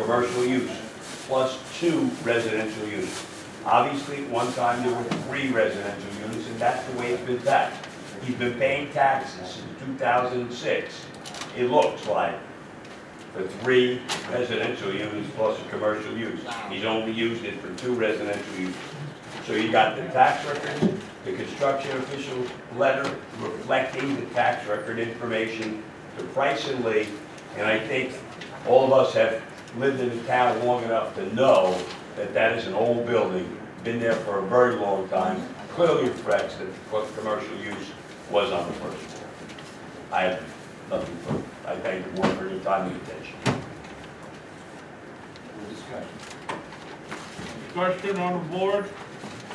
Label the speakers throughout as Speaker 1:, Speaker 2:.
Speaker 1: commercial use, plus two residential uses. Obviously, at one time, there were three residential units, and that's the way it's been taxed. He's been paying taxes since 2006, it looks like, for three residential units plus a commercial use. He's only used it for two residential uses. So you got the tax record, the construction official letter reflecting the tax record information, the price and lea, and I think all of us have lived in the town long enough to know that that is an old building, been there for a very long time, clearly reflects that the commercial use was on the first floor. I have nothing further. I thank the board for your time and attention.
Speaker 2: Question on the board,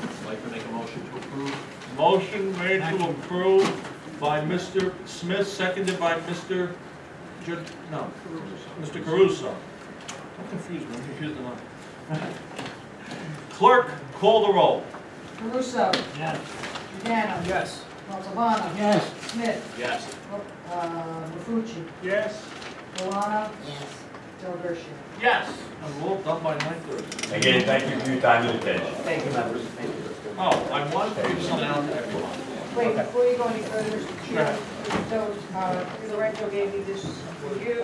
Speaker 3: I'd like to make a motion to approve.
Speaker 2: motion made to approve by Mr. Smith, seconded by Mr. Ju, no, Mr. Caruso. I'm confused, I'm confused on. Clerk, call the roll.
Speaker 4: Caruso.
Speaker 3: Yes.
Speaker 4: Pagano.
Speaker 3: Yes.
Speaker 4: Montalbano.
Speaker 3: Yes.
Speaker 4: Smith.
Speaker 3: Yes.
Speaker 4: uh, Mafucci.
Speaker 2: Yes.
Speaker 4: Milano. Yes. Del Gershio.
Speaker 2: Yes. I'm all done by nine thirty.
Speaker 1: Again, thank you for your time and attention.
Speaker 5: Thank you, members, thank you.
Speaker 2: Oh, I wanted to do something else to everyone.
Speaker 4: Wait, before you go any further, Mr. Chair, so, uh, Lorenzo gave me this for you.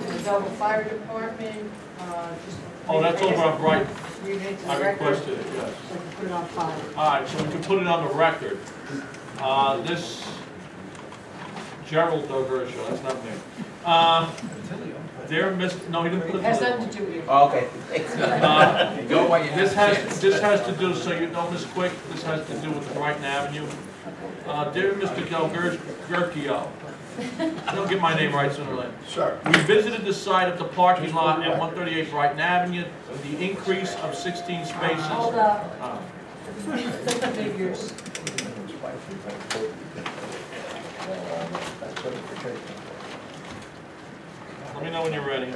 Speaker 4: The Belleville Fire Department, uh, just.
Speaker 2: Oh, that's over on Bright,
Speaker 4: Read it to the
Speaker 2: I
Speaker 4: record, so
Speaker 2: requested it, yes.
Speaker 4: you can put it on file.
Speaker 2: All right, so we can put it on the record. Uh, This Gerald Dovercio, that's not me. Uh, They're mis, no, he didn't put it.
Speaker 4: Has nothing to do with you.
Speaker 5: Okay.
Speaker 2: Uh,
Speaker 5: Go while you
Speaker 2: This has, this has to do, so you know, Ms. Quick, this has to do with Brighton Avenue. Uh, Dear Mr. Delgertio, don't get my name right sooner or later.
Speaker 5: Sure.
Speaker 2: We visited the site of the parking lot at 138 Brighton Avenue, the increase of 16 spaces.
Speaker 4: Hold up,
Speaker 2: Uh,
Speaker 4: figures.
Speaker 2: Let me know when you're ready.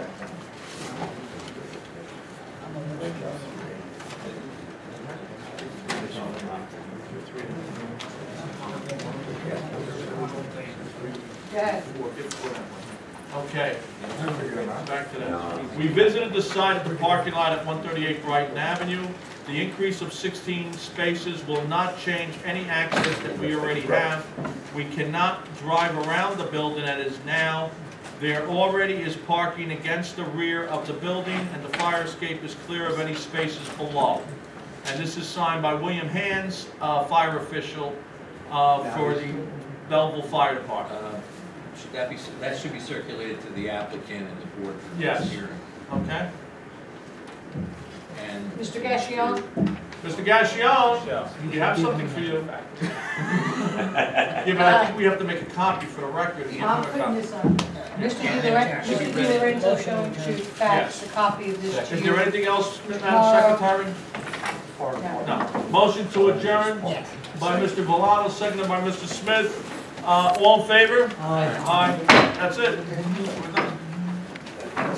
Speaker 4: Yes.
Speaker 2: Okay. Back to that. We visited the site of the parking lot at 138 Brighton Avenue. The increase of 16 spaces will not change any access that we already have. We cannot drive around the building that is now. There already is parking against the rear of the building, and the fire escape is clear of any spaces below. And this is signed by William Hands, uh, fire official uh, for the Belleville Fire Department.
Speaker 6: Uh, Should that be, that should be circulated to the applicant and the board for
Speaker 2: Yes.
Speaker 6: this hearing?
Speaker 2: Okay?
Speaker 6: And
Speaker 4: Mr. Gassion,
Speaker 2: Mr. Gassion, we have something for you. Yeah, but I think we have to make a copy for the record.
Speaker 4: I'm putting this on. Mr. Di Lorenzo, Mr. Di Lorenzo showing to fax the copy of this to
Speaker 2: Is
Speaker 4: you.
Speaker 2: there anything else, Madam Secretary? No. Motion to adjourn by Mr. Valado, seconded by Mr. Smith. Uh, all in favor? Aye. Aye, that's it. We're done.